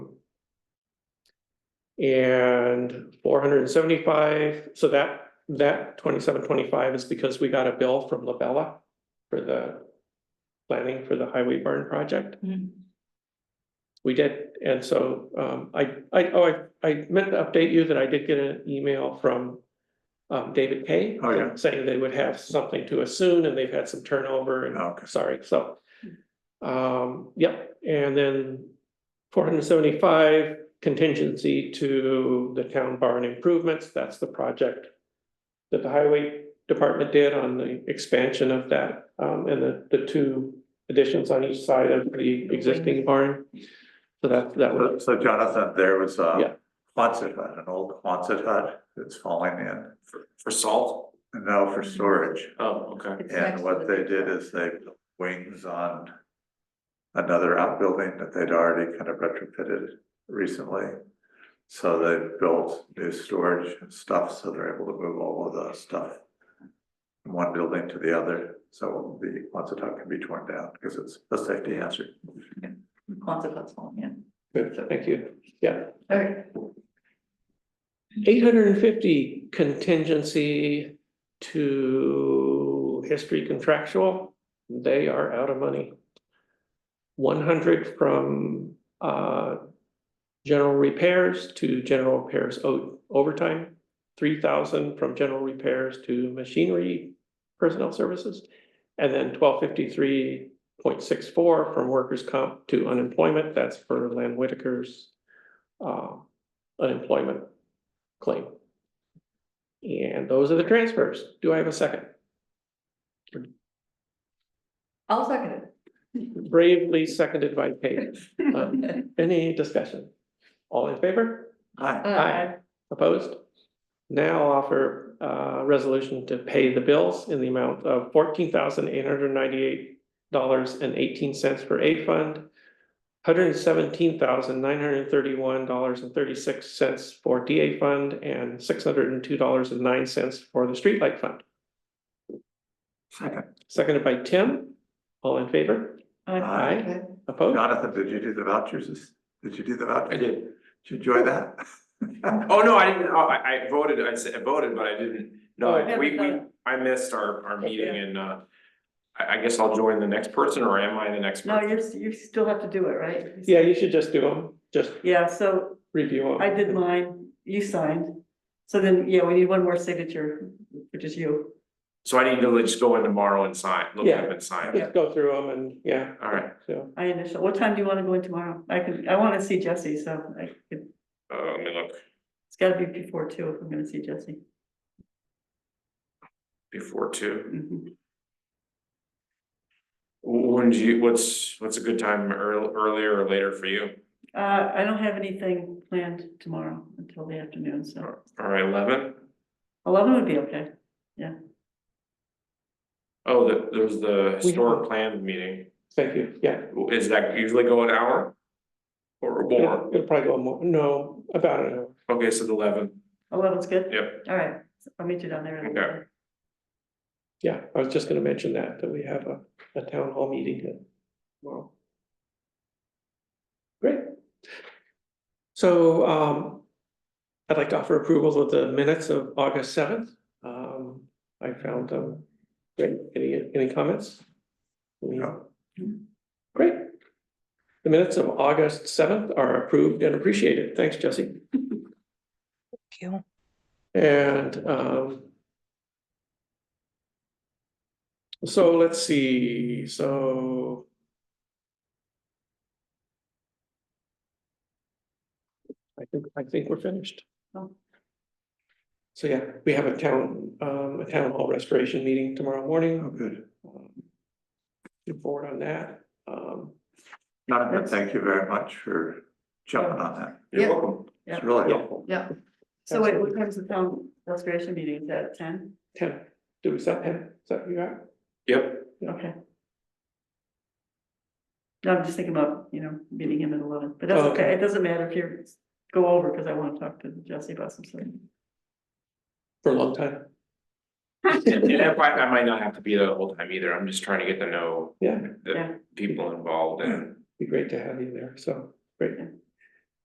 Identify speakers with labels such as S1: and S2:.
S1: And four hundred and seventy-five, so that, that twenty-seven, twenty-five is because we got a bill from Labella for the planning for the highway burn project. We did, and so um I I oh, I I meant to update you that I did get an email from. Um David Kay.
S2: Oh, yeah.
S1: Saying they would have something to us soon and they've had some turnover and
S2: Okay.
S1: sorry, so. Um, yep, and then four hundred and seventy-five contingency to the town barn improvements, that's the project. That the highway department did on the expansion of that, um, and the, the two additions on each side of the existing barn. So that, that
S2: So-
S1: was,
S2: So Jonathan, there was
S1: Yeah.
S2: a Quonset hut, an old Quonset hut that's falling in
S3: For, for salt?
S2: now for storage.
S3: Mm-hmm. Oh, okay.
S4: It's next
S2: And
S4: to
S2: what
S4: the
S2: they
S4: big
S2: did
S4: one.
S2: is they put wings on another outbuilding that they'd already kind of retrofitted recently. So they built new storage and stuff, so they're able to move all of the stuff from one building to the other. So the Quonset hut can be torn down because it's a safety hazard.
S4: Consequence, one, yeah.
S1: good, thank you, yeah.
S4: Okay.
S1: Eight hundred and fifty contingency to history contractual, they are out of money. One hundred from uh general repairs to general repairs o- overtime. Three thousand from general repairs to machinery personnel services. And then twelve fifty-three point six four from workers' comp to unemployment, that's for Len Whitaker's uh unemployment claim. And those are the transfers. Do I have a second?
S4: I'll second it.
S1: Bravely seconded by Kate. Um, Any discussion? All in favor?
S4: Uh,
S2: Hi.
S1: Aye. Opposed? Now I'll offer a resolution to pay the bills in the amount of fourteen thousand eight hundred ninety-eight dollars and eighteen cents for A fund, hundred and seventeen thousand nine hundred thirty-one dollars and thirty-six cents for DA fund, and six hundred and two dollars and nine cents for the streetlight fund.
S2: Second.
S1: Seconded by Tim. All in favor?
S2: Aye.
S4: Okay.
S1: Opposed?
S2: Jonathan, did you do the vouchers? Did you do the vouchers?
S3: I did.
S2: Did you enjoy that?
S3: Oh, no, I didn't, oh, I, I voted, I said, I voted, but I didn't,
S1: Oh.
S3: no, I- we, we, I missed our, our meeting and, uh, I, I guess I'll join the next person or am I the next
S4: No,
S3: person?
S4: you're, s- you still have to do it, right?
S1: Yeah, you should just do them, just
S4: Yeah, so
S1: review them.
S4: I did mine, you signed. So then, yeah, we need one more signature, which is you.
S3: So I need to just go in tomorrow and sign, look
S1: Yeah.
S3: up and sign.
S1: Just go through them and, yeah,
S3: All right,
S1: so,
S4: I initial, what time do you want to go in tomorrow? I could, I want to see Jesse, so I could,
S3: uh, let me look
S4: it's gotta be before two if I'm gonna see Jesse.
S3: before two.
S4: Mhm.
S3: When do you, what's, what's a good time, earl- earlier or later for you?
S4: Uh, I don't have anything planned tomorrow until the afternoon, so
S3: All right, eleven?
S4: eleven would be okay.
S3: Oh, the, there's the
S1: We-
S3: historic plan meeting.
S1: thank you, yeah.
S3: Is that usually go an hour? Or more?
S1: It'll probably go more, no, about an hour.
S3: Okay, so the eleven,
S4: Eleven's good?
S3: Yep.
S4: All right, I'll meet you down there. in a
S3: Okay.
S1: Yeah, I was just gonna mention that, that we have a, a town hall meeting tomorrow. Great. So, um, I'd like to offer approval of the minutes of August seventh. Um, I found them, great, any, any comments?
S2: No.
S1: Great. The minutes of August seventh are approved and appreciated. Thanks, Jesse.
S5: Thank you.
S1: And um. So let's see, so. I think, I think we're finished.
S4: Oh.
S1: So yeah, we have a town, um, a town hall restoration meeting tomorrow
S2: Oh,
S1: morning.
S2: good.
S1: Um, Get forward on that. Um,
S2: Jonathan, thank you very much for jumping on that.
S3: you're
S4: Yeah.
S3: welcome.
S2: It's really
S1: Yeah.
S2: helpful.
S4: Yeah, so wait, what time's the town restoration meeting, is that at ten?
S1: Tim, do we set him? Is that you got?
S3: Yep,
S4: Okay. No, I'm just thinking about, you know, meeting him at eleven, but that's
S1: Oh, okay.
S4: okay, it doesn't matter if you go over, because I want to talk to Jesse about some stuff.
S1: For a long time.
S3: and and that might, I might not have to be the whole time either, I'm just trying to get to know
S1: Yeah,
S3: the
S4: Yeah.
S3: people involved and,
S1: be great to have you there. So, great.
S4: Yeah.